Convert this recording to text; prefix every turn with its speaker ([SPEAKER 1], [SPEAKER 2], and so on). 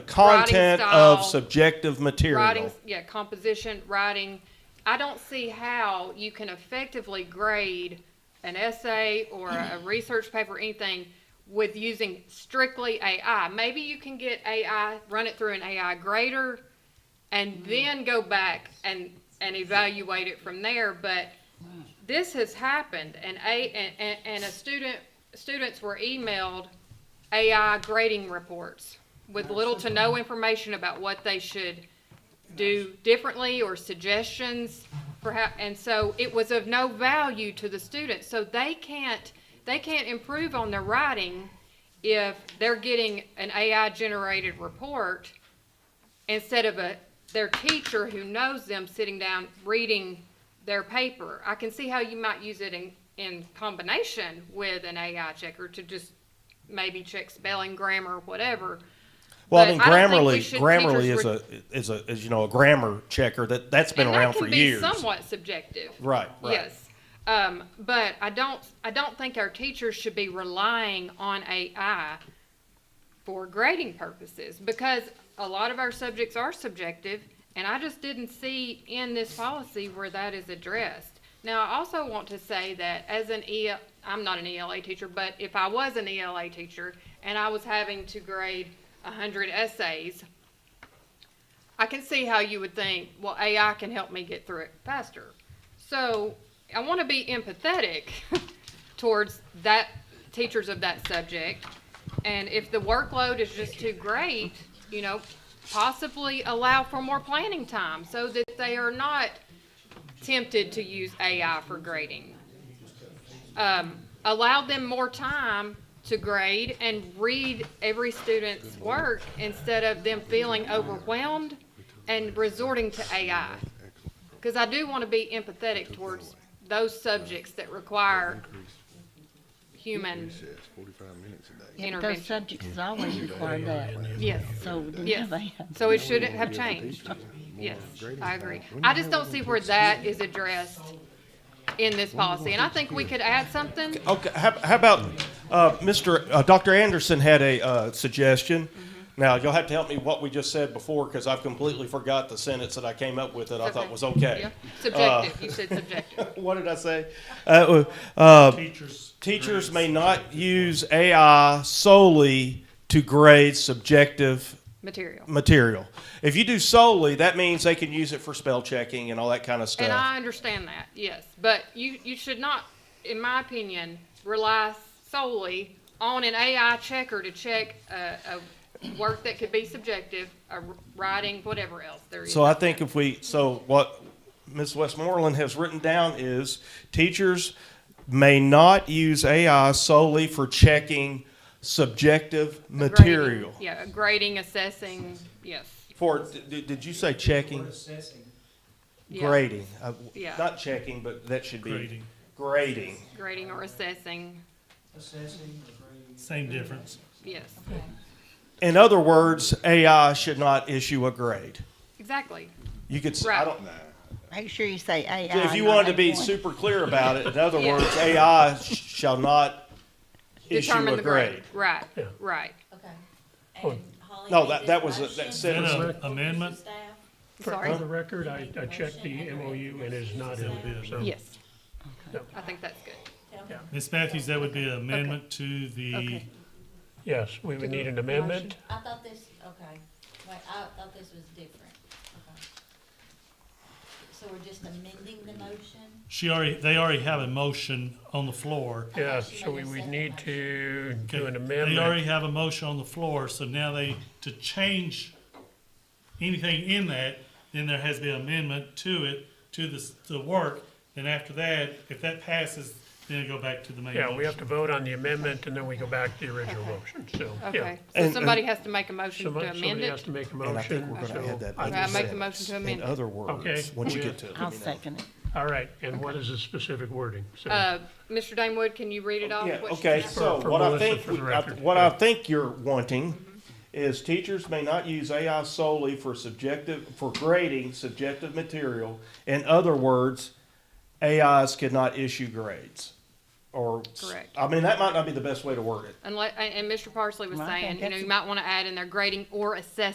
[SPEAKER 1] content
[SPEAKER 2] style.
[SPEAKER 1] of subjective material.
[SPEAKER 2] Writing, yeah, composition, writing. I don't see how you can effectively grade an essay or a research paper, anything, with using strictly AI. Maybe you can get AI, run it through an AI grader, and then go back and, and evaluate it from there, but this has happened, and a, and- and, and a student, students were emailed AI grading reports with little to no information about what they should do differently or suggestions for how, and so it was of no value to the students. So they can't, they can't improve on their writing if they're getting an AI generated report instead of a, their teacher who knows them sitting down reading their paper. I can see how you might use it in, in combination with an AI checker to just maybe check spelling, grammar, whatever.
[SPEAKER 1] Well,
[SPEAKER 2] But
[SPEAKER 1] I mean,
[SPEAKER 2] I don't think we
[SPEAKER 1] Grammarly,
[SPEAKER 2] should-
[SPEAKER 1] Grammarly
[SPEAKER 2] teachers
[SPEAKER 1] is a is a is you know a grammar checker that that's been
[SPEAKER 2] and
[SPEAKER 1] around
[SPEAKER 2] that can
[SPEAKER 1] for
[SPEAKER 2] be
[SPEAKER 1] years.
[SPEAKER 2] somewhat subjective.
[SPEAKER 1] Right, right.
[SPEAKER 2] Yes. Um, but I don't, I don't think our teachers should be relying on AI for grading purposes because a lot of our subjects are subjective and I just didn't see in this policy where that is addressed. Now, I also want to say that as an EL, I'm not an ELA teacher, but if I was an ELA teacher and I was having to grade hundred essays, I can see how you would think, well, AI can help me get through it faster. So I want to be empathetic towards that teachers of that subject. And if the workload is just too great, you know, possibly allow for more planning time so that they are not tempted to use AI for grading. Um, allow them more time to grade and read every student's work instead of them feeling overwhelmed and resorting to AI. Because I do want to be empathetic towards those subjects that require human,
[SPEAKER 3] Yes, forty-five minutes a day.
[SPEAKER 2] Yeah, but
[SPEAKER 4] Those
[SPEAKER 2] those
[SPEAKER 4] subjects has always required that,
[SPEAKER 2] yes.
[SPEAKER 4] so
[SPEAKER 2] Yes. So it shouldn't have changed. Yes, I agree. I just don't see where that is addressed in this policy, and I think we could add something.
[SPEAKER 1] Okay, how, how about uh, Mr. Uh, Dr. Anderson had a uh, suggestion.
[SPEAKER 2] Mm-hmm.
[SPEAKER 1] Now you'll have to help me what we just said before because I've completely forgot the sentence that I came up with that I thought was okay.
[SPEAKER 2] Yeah. Subjective, you said subjective.
[SPEAKER 1] What did I say? Uh, uh, teachers may not use AI solely to grade subjective
[SPEAKER 2] Material.
[SPEAKER 1] material. If you do solely, that means they can use it for spell checking and all that kind of stuff.
[SPEAKER 2] And I understand that, yes, but you, you should not, in my opinion, rely solely on an AI checker to check a, a work that could be subjective, a writing, whatever else there is.
[SPEAKER 1] So I think if we, so what Ms. Westmoreland has written down is teachers may not use AI solely for checking subjective
[SPEAKER 2] Grading,
[SPEAKER 1] material.
[SPEAKER 2] Yeah, grading, assessing, yes.
[SPEAKER 1] For, did, did you say checking?
[SPEAKER 2] yeah.
[SPEAKER 1] Grading. Uh,
[SPEAKER 2] Yeah.
[SPEAKER 1] Not checking, but that should be. Grading. Grading.
[SPEAKER 2] Grading or assessing,
[SPEAKER 5] Same difference.
[SPEAKER 2] yes,
[SPEAKER 1] In other words, AI should not issue a grade.
[SPEAKER 2] exactly.
[SPEAKER 1] You could, s- I
[SPEAKER 2] Right.
[SPEAKER 1] don't,
[SPEAKER 4] Make sure you say AI.
[SPEAKER 1] if you wanted to be super clear about it, in other
[SPEAKER 2] Yeah.
[SPEAKER 1] words, AI sh- shall not issue
[SPEAKER 2] Determine
[SPEAKER 1] a
[SPEAKER 2] the
[SPEAKER 1] grade.
[SPEAKER 2] grade, right,
[SPEAKER 5] Yeah.
[SPEAKER 2] right,
[SPEAKER 6] Okay.
[SPEAKER 5] Oh.
[SPEAKER 6] And Holly
[SPEAKER 1] No,
[SPEAKER 6] made
[SPEAKER 1] that-
[SPEAKER 6] this
[SPEAKER 1] that was a-
[SPEAKER 6] motion.
[SPEAKER 1] that said-
[SPEAKER 5] And
[SPEAKER 6] Motion
[SPEAKER 5] a
[SPEAKER 6] for
[SPEAKER 5] amendment?
[SPEAKER 6] staff.
[SPEAKER 2] sorry,
[SPEAKER 5] For the record, I, I checked the MOU and it is not in it, so.
[SPEAKER 2] yes.
[SPEAKER 5] No.
[SPEAKER 2] I think that's good.
[SPEAKER 7] Ms. Matthews, that would be an amendment to the,
[SPEAKER 2] Okay.
[SPEAKER 5] Yes, we would need an amendment.
[SPEAKER 6] I thought this, okay, wait, I thought this was different. Okay. So we're just amending the motion?
[SPEAKER 7] she already, they already have a motion on the floor.
[SPEAKER 5] Yes, so we would need to do an
[SPEAKER 7] They already
[SPEAKER 5] amendment.
[SPEAKER 7] have a motion on the floor, so now they, to change anything in that, then there has to be an amendment to it, to the, s- the work. And after that, if that passes, then it go back to the main
[SPEAKER 5] Yeah, we have
[SPEAKER 7] motion.
[SPEAKER 5] to vote on the amendment and then we go back to the original motion, so, yeah.
[SPEAKER 2] Okay,
[SPEAKER 1] And-
[SPEAKER 2] so
[SPEAKER 1] and-
[SPEAKER 2] somebody has to make a motion
[SPEAKER 5] Somebody
[SPEAKER 2] to amend
[SPEAKER 5] somebody has
[SPEAKER 2] it?
[SPEAKER 5] to make a
[SPEAKER 1] And I think
[SPEAKER 5] motion,
[SPEAKER 1] we're gonna add
[SPEAKER 5] so.
[SPEAKER 1] that
[SPEAKER 5] I-
[SPEAKER 1] other
[SPEAKER 2] I make the
[SPEAKER 1] sentence.
[SPEAKER 2] motion to
[SPEAKER 1] In
[SPEAKER 2] amend it.
[SPEAKER 1] other words,
[SPEAKER 5] Okay.
[SPEAKER 1] once you
[SPEAKER 5] Yeah.
[SPEAKER 1] get to it.
[SPEAKER 4] I'll second it.
[SPEAKER 5] All right, and what is the specific wording? So,
[SPEAKER 2] Uh, Mr. Damewood, can you read it off?
[SPEAKER 1] Oh, Yeah,
[SPEAKER 2] what she
[SPEAKER 1] okay,
[SPEAKER 2] said?
[SPEAKER 1] so
[SPEAKER 5] For- for
[SPEAKER 1] what I
[SPEAKER 5] Melissa,
[SPEAKER 1] think,
[SPEAKER 5] for the
[SPEAKER 1] we- I-
[SPEAKER 5] record.
[SPEAKER 1] what I think you're wanting
[SPEAKER 2] Mm-hmm.
[SPEAKER 1] is teachers may not use AI solely for subjective, for grading subjective material. In other words, AIs could not issue grades or. s-
[SPEAKER 2] Correct.
[SPEAKER 1] I mean, that might not be the best way to word it.
[SPEAKER 2] Unless, and and Mr. Parsley was
[SPEAKER 4] Well, I
[SPEAKER 2] saying,
[SPEAKER 4] think
[SPEAKER 2] you know,
[SPEAKER 4] that's-
[SPEAKER 2] you might want to add in there grading or assessing.